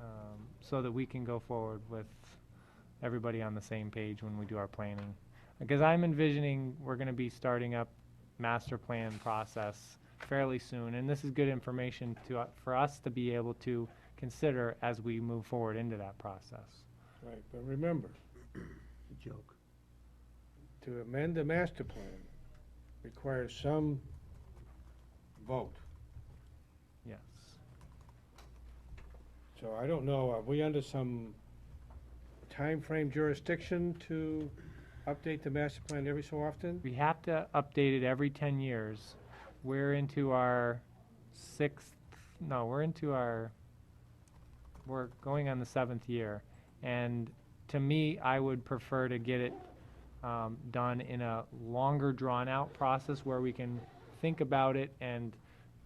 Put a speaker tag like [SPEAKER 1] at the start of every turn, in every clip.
[SPEAKER 1] um, so that we can go forward with everybody on the same page when we do our planning. Because I'm envisioning we're gonna be starting up master plan process fairly soon, and this is good information to, u- for us to be able to consider as we move forward into that process.
[SPEAKER 2] Right, but remember,
[SPEAKER 3] Joke.
[SPEAKER 2] to amend the master plan requires some vote.
[SPEAKER 1] Yes.
[SPEAKER 2] So I don't know, are we under some time frame jurisdiction to update the master plan every so often?
[SPEAKER 1] We have to update it every ten years. We're into our sixth, no, we're into our, we're going on the seventh year. And to me, I would prefer to get it, um, done in a longer drawn-out process where we can think about it and,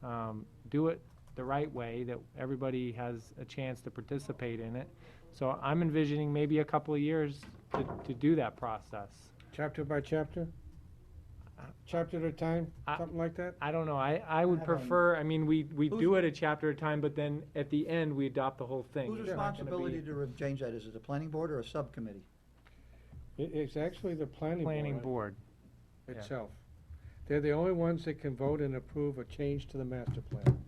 [SPEAKER 1] um, do it the right way, that everybody has a chance to participate in it. So I'm envisioning maybe a couple of years to, to do that process.
[SPEAKER 2] Chapter by chapter?
[SPEAKER 1] Uh,
[SPEAKER 2] Chapter at a time,
[SPEAKER 1] I-
[SPEAKER 2] something like that?
[SPEAKER 1] I don't know, I, I would
[SPEAKER 3] I don't-
[SPEAKER 1] prefer, I mean, we, we
[SPEAKER 3] Who's-
[SPEAKER 1] do it a chapter at a time, but then at the end, we adopt the whole thing.
[SPEAKER 3] Whose
[SPEAKER 1] It's not gonna
[SPEAKER 3] responsibility
[SPEAKER 1] be
[SPEAKER 3] to re- change that? Is it the planning board or a subcommittee?
[SPEAKER 2] It, it's actually the planning
[SPEAKER 1] Planning
[SPEAKER 2] board
[SPEAKER 1] board, yeah.
[SPEAKER 2] itself. They're the only ones that can vote and approve a change to the master plan.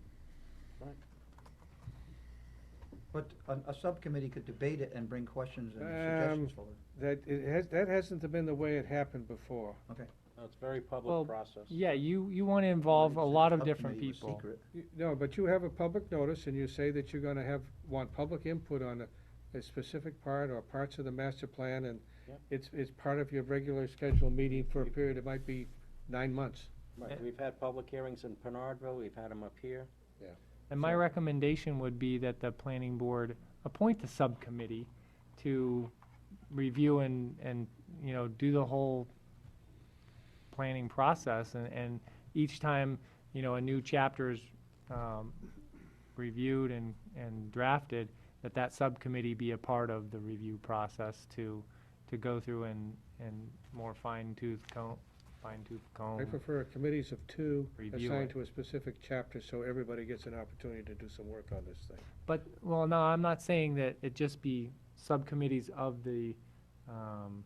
[SPEAKER 3] But a, a subcommittee could debate it and bring questions and suggestions
[SPEAKER 2] Um,
[SPEAKER 3] forward.
[SPEAKER 2] That, it has, that hasn't been the way it happened before.
[SPEAKER 4] No, it's a very
[SPEAKER 1] Well,
[SPEAKER 4] public process.
[SPEAKER 1] yeah, you, you wanna involve a
[SPEAKER 3] Subcommittee
[SPEAKER 1] lot of different
[SPEAKER 3] was
[SPEAKER 1] people.
[SPEAKER 3] secret.
[SPEAKER 2] You- No, but you have a public notice and you say that you're gonna have, want public input on a, a specific part or parts of the master plan and
[SPEAKER 4] Yep.
[SPEAKER 2] it's, it's part of your regular scheduled meeting for a period, it might be nine months.
[SPEAKER 4] Right,
[SPEAKER 1] Yeah.
[SPEAKER 4] we've had public hearings in Penardville, we've had them up here.
[SPEAKER 1] And my
[SPEAKER 2] So-
[SPEAKER 1] recommendation would be that the planning board appoint the subcommittee to review and, and, you know, do the whole planning process, and, and each time, you know, a new chapter is, um, reviewed and, and drafted, that that subcommittee be a part of the review process to, to go through and, and more fine tooth comb, fine tooth comb.
[SPEAKER 2] I prefer committees of two
[SPEAKER 1] Um, Review
[SPEAKER 2] assigned
[SPEAKER 1] it.
[SPEAKER 2] to a specific chapter, so everybody gets an opportunity to do some work on this thing.
[SPEAKER 1] But, well, no, I'm not saying that it just be subcommittees of the, um,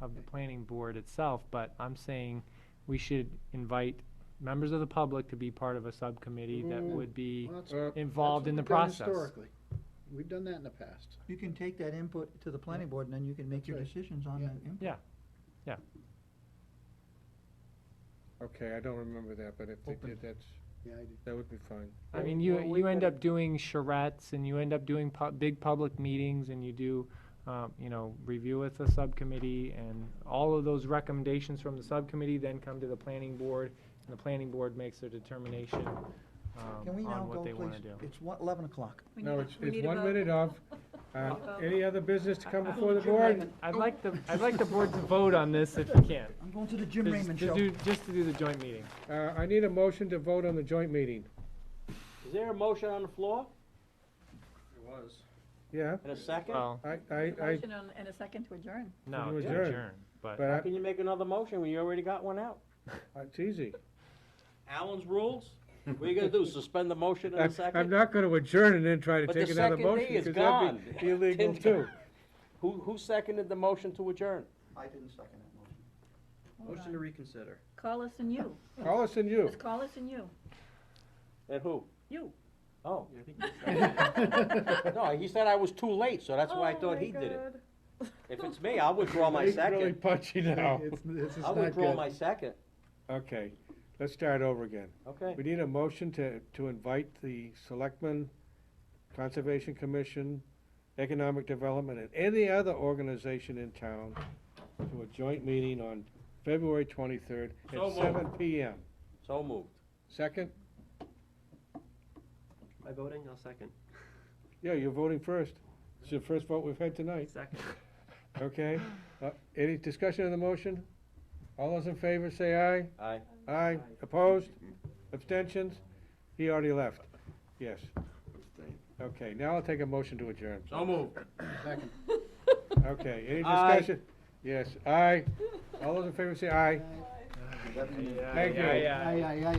[SPEAKER 1] of the planning board itself, but I'm saying we should invite members of the public to be part of a subcommittee that
[SPEAKER 5] Mm.
[SPEAKER 1] would be
[SPEAKER 5] Well, that's-
[SPEAKER 2] Uh,
[SPEAKER 1] involved in the
[SPEAKER 5] That's what we've
[SPEAKER 1] process.
[SPEAKER 5] done Historically, we've done that in the past.
[SPEAKER 3] You can take that input to the planning board and then you can make your
[SPEAKER 5] Right.
[SPEAKER 3] decisions on
[SPEAKER 5] Yeah.
[SPEAKER 3] that input.
[SPEAKER 1] Yeah.
[SPEAKER 2] Okay, I don't remember that, but if they
[SPEAKER 3] Open.
[SPEAKER 2] did, that's,
[SPEAKER 5] Yeah, I do.
[SPEAKER 2] that would be fine.
[SPEAKER 1] I mean, you,
[SPEAKER 5] Well, we
[SPEAKER 1] you end
[SPEAKER 5] gotta-
[SPEAKER 1] up doing charrettes and you end up doing pu- big public meetings and you do, um, you know, review with the subcommittee and all of those recommendations from the subcommittee then come to the planning board and the planning board makes their determination,
[SPEAKER 3] Can
[SPEAKER 1] um,
[SPEAKER 3] we now
[SPEAKER 1] on
[SPEAKER 3] go,
[SPEAKER 1] what they wanna
[SPEAKER 3] please?
[SPEAKER 1] do.
[SPEAKER 3] It's one, eleven o'clock.
[SPEAKER 6] We
[SPEAKER 2] No,
[SPEAKER 6] need a-
[SPEAKER 2] it's,
[SPEAKER 6] we
[SPEAKER 2] it's
[SPEAKER 6] need a
[SPEAKER 2] one
[SPEAKER 6] vote.
[SPEAKER 2] minute of, uh,
[SPEAKER 6] vote.
[SPEAKER 2] any other business to come
[SPEAKER 1] I- I-
[SPEAKER 2] before the board?
[SPEAKER 1] I'd like the, I'd like the board to vote on this if you can.
[SPEAKER 3] I'm going to the Jim
[SPEAKER 1] Just-
[SPEAKER 3] Raymond
[SPEAKER 1] to
[SPEAKER 3] show.
[SPEAKER 1] do- Just to do the joint meeting.
[SPEAKER 2] Uh, I need a motion to vote on the joint meeting.
[SPEAKER 4] Is there a motion on the floor
[SPEAKER 2] Yeah,
[SPEAKER 4] in a second?
[SPEAKER 1] Well,
[SPEAKER 2] I, I, I,
[SPEAKER 6] Motion and- and a second to adjourn.
[SPEAKER 1] no,
[SPEAKER 2] you
[SPEAKER 1] to
[SPEAKER 2] adjourn.
[SPEAKER 1] adjourn, but,
[SPEAKER 2] but
[SPEAKER 4] How can you make another motion when you already got one out?
[SPEAKER 2] I- it's easy.
[SPEAKER 4] Allen's rules? What are you gonna do, suspend the motion in
[SPEAKER 2] I'm-
[SPEAKER 4] a
[SPEAKER 2] I'm
[SPEAKER 4] second?
[SPEAKER 2] not gonna adjourn and then try to
[SPEAKER 4] But the
[SPEAKER 2] take another
[SPEAKER 4] second
[SPEAKER 2] motion,
[SPEAKER 4] day is
[SPEAKER 2] because that'd
[SPEAKER 4] gone.
[SPEAKER 2] be illegal
[SPEAKER 4] Didn't-
[SPEAKER 2] too.
[SPEAKER 4] Who, who seconded the motion to adjourn?
[SPEAKER 3] I didn't second that motion.
[SPEAKER 6] Hold on.
[SPEAKER 3] reconsider.
[SPEAKER 6] Call us and you.
[SPEAKER 2] Call us and you.
[SPEAKER 6] Just call us and you.
[SPEAKER 4] And who?
[SPEAKER 6] You.
[SPEAKER 4] Oh. No, he said I was too late, so that's why I
[SPEAKER 6] Oh
[SPEAKER 4] thought
[SPEAKER 6] my
[SPEAKER 4] he did it.
[SPEAKER 6] God.
[SPEAKER 4] If it's me, I'll withdraw my
[SPEAKER 2] He's Really
[SPEAKER 4] second.
[SPEAKER 2] punchy now.
[SPEAKER 5] It's, this is
[SPEAKER 4] I'll
[SPEAKER 5] not
[SPEAKER 4] withdraw
[SPEAKER 5] good.
[SPEAKER 4] my second,
[SPEAKER 2] Okay, let's start over again.
[SPEAKER 4] okay?
[SPEAKER 2] We need a motion to, to invite the selectmen, Conservation Commission, Economic Development, and any other organization in town to a joint meeting on February twenty-third
[SPEAKER 4] So
[SPEAKER 2] at
[SPEAKER 4] moved.
[SPEAKER 2] seven PM.
[SPEAKER 4] So moved.
[SPEAKER 2] Second?
[SPEAKER 7] By voting, I'll second.
[SPEAKER 2] Yeah, you're voting first. It's your first vote we've had tonight,
[SPEAKER 7] Second.
[SPEAKER 2] okay? Uh, Any discussion on the motion? All those in favor, say aye.
[SPEAKER 4] Aye.
[SPEAKER 2] Aye. Opposed? Abstentions? He already left. Yes. Okay, now I'll take a motion to adjourn.
[SPEAKER 4] So moved.
[SPEAKER 5] Second.
[SPEAKER 6] Oh,
[SPEAKER 2] Okay, any
[SPEAKER 4] Aye.
[SPEAKER 2] discussion? Yes, aye. All those in favor say aye. Thank you.
[SPEAKER 1] yeah, yeah.
[SPEAKER 5] Aye, aye, aye.